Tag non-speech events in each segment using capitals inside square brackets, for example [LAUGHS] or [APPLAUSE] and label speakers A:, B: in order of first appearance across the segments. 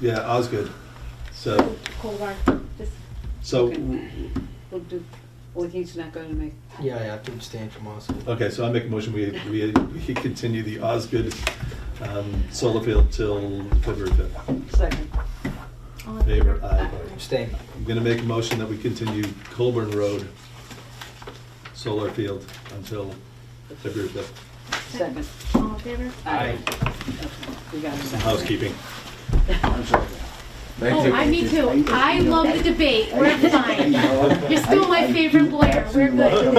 A: Yeah, Osgood. So,
B: Cold hard, just,
A: so,
B: we'll do, well, he's not gonna make,
C: Yeah, I have to abstain from Osgood.
A: okay, so I make a motion, we, we, we continue the Osgood, um, solar field till February fifth.
B: second.
D: All in
A: Favor,
D: favor?
A: aye.
C: Abstain.
A: I'm gonna make a motion that we continue Colburn Road solar field until February fifth.
B: Second.
D: All in favor?
B: Aye. Okay, We got it.
A: Housekeeping.
D: Oh, I, me too. I love the debate. We're fine. You're still my favorite lawyer. We're good.
E: I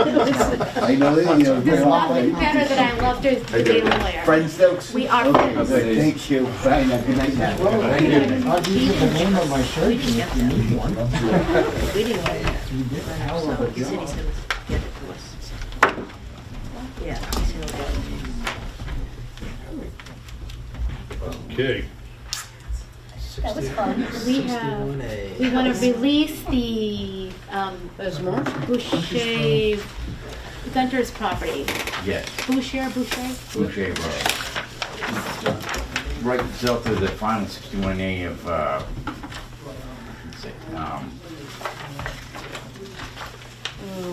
E: know that, you know.
D: There's
E: we're all
D: nothing
E: like-
D: better than I loved her as the daily lawyer.
E: Friends, folks?
D: We are
E: Okay,
D: friends.
E: good. Thank you. Bye, now. Good night, now.
F: I'll give you the name of my church if you need one.
G: We didn't get that,
F: You did.
G: so the city's gonna get it to us. Yeah. so we'll get it.
A: Okay.
C: That was fun. Sixty-one A.
D: We want to release the um,
B: There's more?
D: Boucher Gunter's property.
H: Yes,
D: Boucher, Boucher.
H: Boucher Road. Right south of the final 61A of, uh, let's see, um,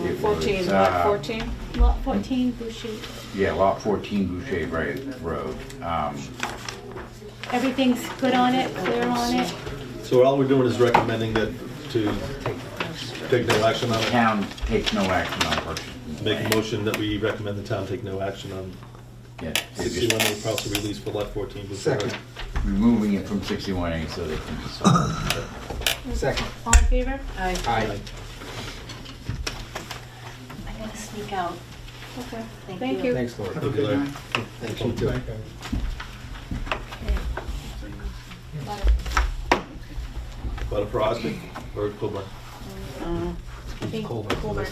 H: It
B: Fourteen,
H: was,
B: lot
H: uh,
B: fourteen?
D: Lot 14 Boucher.
H: yeah, Lot 14 Boucher Ra- Road. Um,
D: Everything's good on it, clear on it.
A: So all we're doing is recommending that to take no action on it.
H: Town takes no action on purchasing. the
A: Make
H: land.
A: a motion that we recommend the town take no action on
H: Yeah, they're
A: sixty-one
H: just
A: A parcel release for lot fourteen.
C: Second.
H: removing it from 61A so they can just. sell
C: Second.
D: All in favor?
B: Aye.
C: Aye.
G: I gotta sneak out.
D: Okay.
G: Thank
D: Thank
G: you.
D: you.
C: Thanks, Laura.
A: Thank you, Larry.
C: Thank you too.
A: But for Osgood or Colburn?
B: Uh,
D: Thank- Colburn.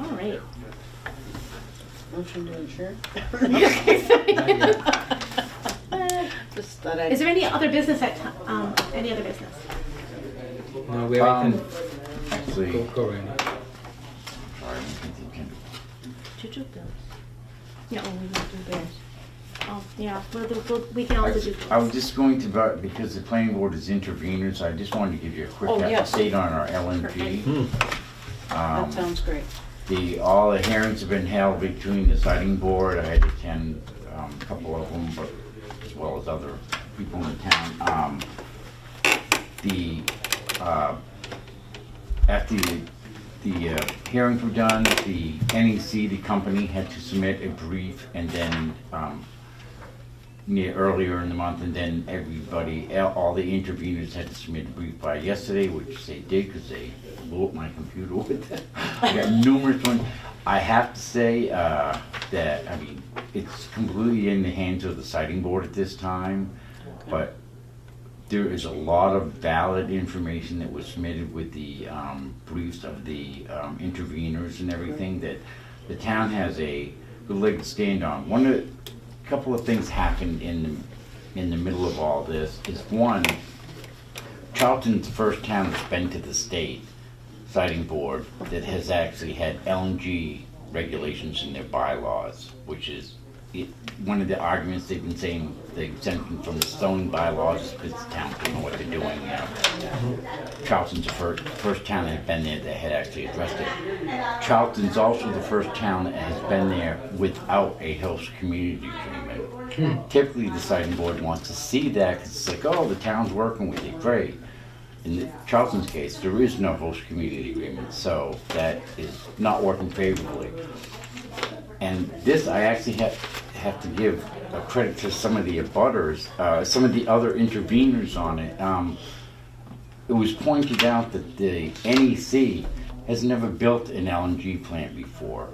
D: All right.
B: Motion to adjourn? Just
D: [LAUGHS]
B: thought
D: Is
B: I'd,
D: there any other business at, t- um, any other business?
C: No, Uh, we
H: it. Um,
C: can go,
H: actually,
C: go right now.
H: sorry, I'm thinking-
G: Choo-choo bill.
D: No.
G: Oh, we will do theirs.
D: Oh, yeah, we'll do, we'll, we can also do.
H: I was just going to, vote because the planning board is interveners, I just wanted to give you a quick
B: Oh, yes.
H: update on our LNG.
B: that sounds great.
H: The, all the hearings have been held between the siding board, I had to attend um, a couple of them, but as well as other people in town. Um, The, uh, after the, the uh, hearings were done, the NEC, the company, had to submit a brief and then um, near earlier in the month, and then everybody, all the interveners had to submit a brief by yesterday, which they did because they blew up my computer with it. [LAUGHS] I got numerous ones. I have to say uh, that I mean it's completely in the hands of the sighting board at this time, but there is a lot of valid information that was submitted with the um, briefs of the um, interveners and everything that the town has a good leg to stand on. One of, a couple of things happened in the, in the middle of all this is one, Charlton's the first town that's been to the state siting board that has actually had LNG regulations in their bylaws, which is it, one of the arguments they've been saying the exemption from the zoning bylaws is because the town doesn't know what they're doing now. Charlton's the first, first town that had been there that had actually addressed it. Charlton's also the first town that has been there without a host community agreement. Typically, the siting board wants to see that because it's like, oh, the town's working with you, great. In the- Charlton's case, there is no host community agreement, so that is not working favorably. And this, I actually have, have to give a credit to some of the abutters, uh, some of the other interveners on it. Um, it was pointed out that the NEC has never built an LNG plant before.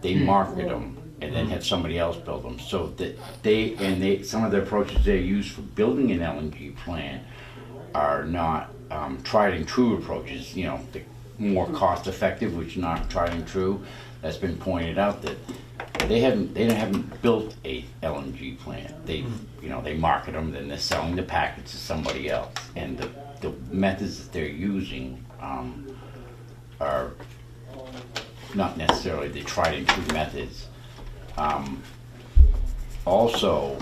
H: They market them and then have somebody else build them. So that they, and they, some of the approaches they use for building an LNG plant are not um, tried and true approaches, you know, the more cost effective, which are not tried and true. That's been pointed out that they haven't, they haven't built a LNG plant. They, you know, they market them, then they're selling the package to somebody else. And the, the methods that they're using um, are not necessarily the tried and true methods Um, also